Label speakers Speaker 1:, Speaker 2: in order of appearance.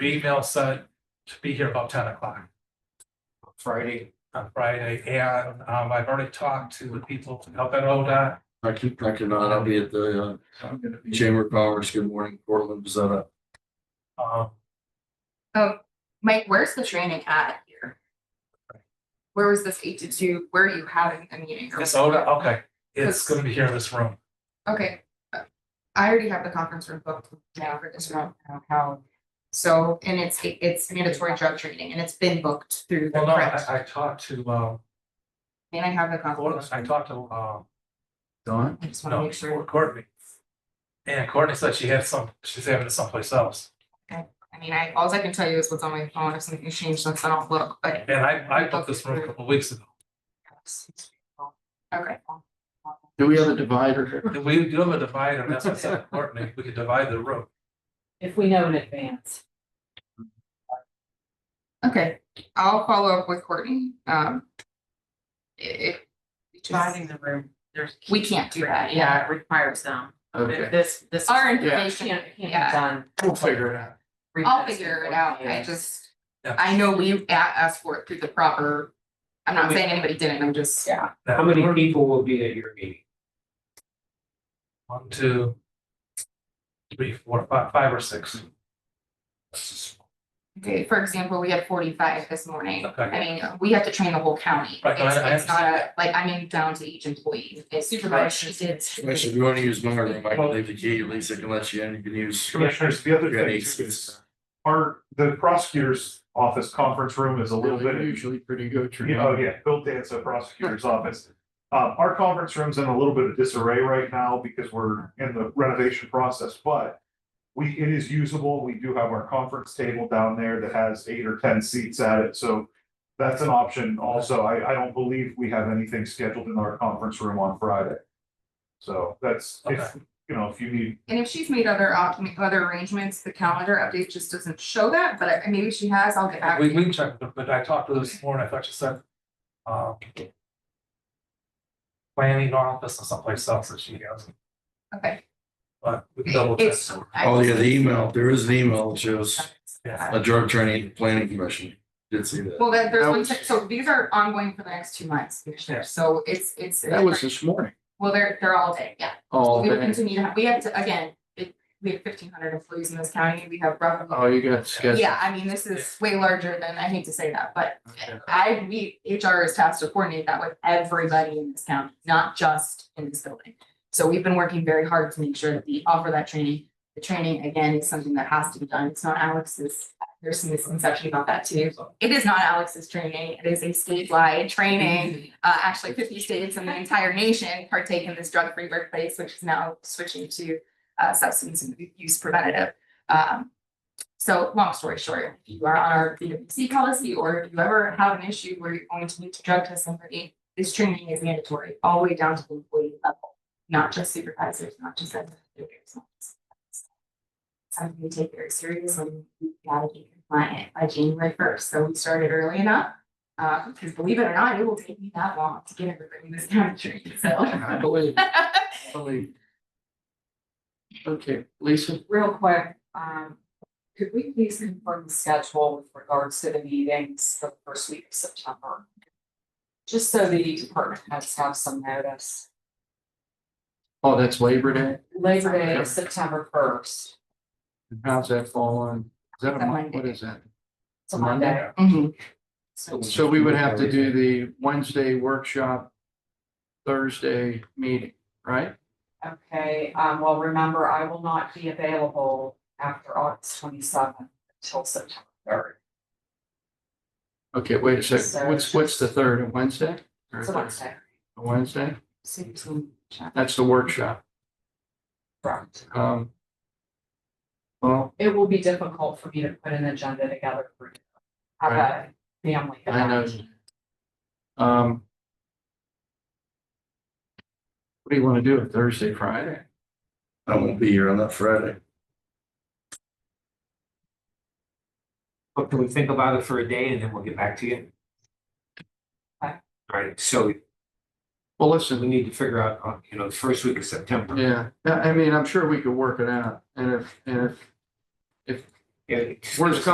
Speaker 1: email said to be here about ten o'clock
Speaker 2: Friday,
Speaker 1: on Friday, and um I've already talked to the people out at ODOT.
Speaker 3: I keep, I cannot, I'll be at the uh, Chamber of Commerce, good morning, Portland, Zeta.
Speaker 1: Um,
Speaker 4: Mike, where's the training at here? Where was this eight to two? Where are you having the meeting?
Speaker 1: it's ODOT, okay, it's gonna be here in this room.
Speaker 4: Okay. uh, I already have the conference room booked now for this round. How? So, and it's, it's mandatory drug training and it's been booked through the
Speaker 1: Well, no,
Speaker 4: print.
Speaker 1: I I talked to um,
Speaker 4: And I have the conference.
Speaker 1: I talked to um,
Speaker 3: Don?
Speaker 4: I just want to
Speaker 1: no,
Speaker 4: make sure.
Speaker 1: Courtney. And Courtney said she had some, she's having it someplace else.
Speaker 4: I mean, I, all I can tell you is what's on my phone. If something changed, that's not look, but.
Speaker 1: And I I booked this room a couple weeks ago.
Speaker 4: Okay.
Speaker 3: Do we have a divider?
Speaker 1: We do have a divider, and that's what I said, to Courtney, we could divide the room.
Speaker 5: If we know in advance.
Speaker 4: Okay, I'll follow up with Courtney, um. i- If.
Speaker 5: Dividing the room, there's.
Speaker 4: We can't do that, yeah.
Speaker 5: it Requires them.
Speaker 3: Okay,
Speaker 5: This, this.
Speaker 4: Our
Speaker 5: It
Speaker 4: information,
Speaker 5: Can't, can't be
Speaker 4: yeah,
Speaker 5: done.
Speaker 3: we'll figure it out.
Speaker 4: I'll figure it out, I
Speaker 5: Yeah.
Speaker 4: just,
Speaker 1: Yeah.
Speaker 4: I know we a- asked for it through the proper. I'm not saying anybody didn't, I'm just, yeah,
Speaker 2: how many people will be at your meeting?
Speaker 1: One, two, three, four, five, five or six.
Speaker 4: okay, for example, we had forty-five this morning. I
Speaker 1: Okay,
Speaker 4: mean, we have to train the whole county,
Speaker 1: Right, no, I- I
Speaker 4: it's, it's not a, like, I mean, down to each employee, It's supervisor, she did.
Speaker 3: Actually, if you want to use my room, I can leave the key, Lisa can let you in, you can use.
Speaker 6: Commissioners, the other
Speaker 3: Yeah,
Speaker 6: thing
Speaker 3: it's-
Speaker 6: too is our, the prosecutor's office conference room is a little
Speaker 3: Really,
Speaker 6: bit,
Speaker 3: Usually pretty good.
Speaker 6: you know, yeah, built in, so prosecutor's office. Uh, our conference room's in a little bit of disarray right now because we're in the renovation process, but we, it is usable. We do have our conference table down there that has eight or ten seats at it, so that's an option also. I, I don't believe we have anything scheduled in our conference room on Friday. So that's, if, you know, if you need
Speaker 4: And if she's made other op, other arrangements, the calendar update just doesn't show that, but I- maybe she has, I'll get back to
Speaker 1: we
Speaker 4: you.
Speaker 1: we can check, but- but I talked to this morning, I thought she said. um, Planning office or someplace else that she has,
Speaker 4: Okay.
Speaker 1: but we can double check.
Speaker 4: It's-
Speaker 3: Oh, yeah, the email, there is an email that shows
Speaker 1: Yeah.
Speaker 3: a drug training planning commission, did see that.
Speaker 4: Well, that, there's
Speaker 3: That
Speaker 4: one,
Speaker 3: was-
Speaker 4: check- so these are ongoing for the next two months, Commissioner, so it's, it's.
Speaker 3: That was this morning,
Speaker 4: Well, they're, they're all day, yeah.
Speaker 3: all
Speaker 4: We will
Speaker 3: day.
Speaker 4: continue to have, we have to, again, it, we have fifteen hundred employees in this county, we have roughly.
Speaker 3: Oh, you got scheduled.
Speaker 4: Yeah, I mean, this is way larger than, I hate to say that, but
Speaker 3: Okay.
Speaker 4: I, we, HR is tasked to coordinate that with everybody in this county, not just in this building. So we've been working very hard to make sure that we offer that training. The training, again, is something that has to be done. It's not Alex's, there's some misconception about that too. It is not Alex's training. It is a statewide training. Uh, actually fifty states and the entire nation partake in this drug-free workplace, which is now switching to uh, substance use preventative. Um, so long story short, if you are on our BWC policy or if you ever have an issue where you're going to need to drug test somebody, this training is mandatory all the way down to the employee level, not just supervisors, not just administrators. not just- Something we take very seriously, we gotta be compliant by January first, so we started early enough. Uh, because believe it or not, it will take me that long to get everybody in this country, so.
Speaker 3: I believe, I believe. Okay, Lisa?
Speaker 5: Real quick, um, could we please confirm the schedule with regards to the meetings the first week of September? Just so the department heads have some notice.
Speaker 3: Oh, that's Labor Day?
Speaker 5: Labor Day is September first.
Speaker 3: And How's that fall on? Is that
Speaker 4: It's
Speaker 3: a
Speaker 4: a
Speaker 3: month? What
Speaker 4: Monday.
Speaker 3: is that?
Speaker 5: It's a Monday.
Speaker 4: Mhm.
Speaker 3: So we would have to do the Wednesday workshop, Thursday meeting, right?
Speaker 5: Okay, um, well, remember, I will not be available after August twenty seventh until September third.
Speaker 3: Okay, wait a second. What's, what's the third, a Wednesday? Or
Speaker 5: It's a Wednesday.
Speaker 3: A Wednesday?
Speaker 4: So you can check.
Speaker 3: That's the workshop.
Speaker 5: Correct.
Speaker 3: Um. Well,
Speaker 5: It will be difficult for me to put an agenda together for you. Have a family.
Speaker 3: I know.
Speaker 5: event.
Speaker 3: um. What do you want to do, Thursday, Friday? I won't be here on that Friday.
Speaker 2: But can we think about it for a day and then we'll get back to you?
Speaker 5: Okay.
Speaker 2: Right, so
Speaker 3: Well,
Speaker 2: we
Speaker 3: listen,
Speaker 2: need to figure out, uh, you know, the first week of September.
Speaker 3: yeah, I I mean, I'm sure we could work it out. And if, and if
Speaker 2: Yeah.
Speaker 3: Worst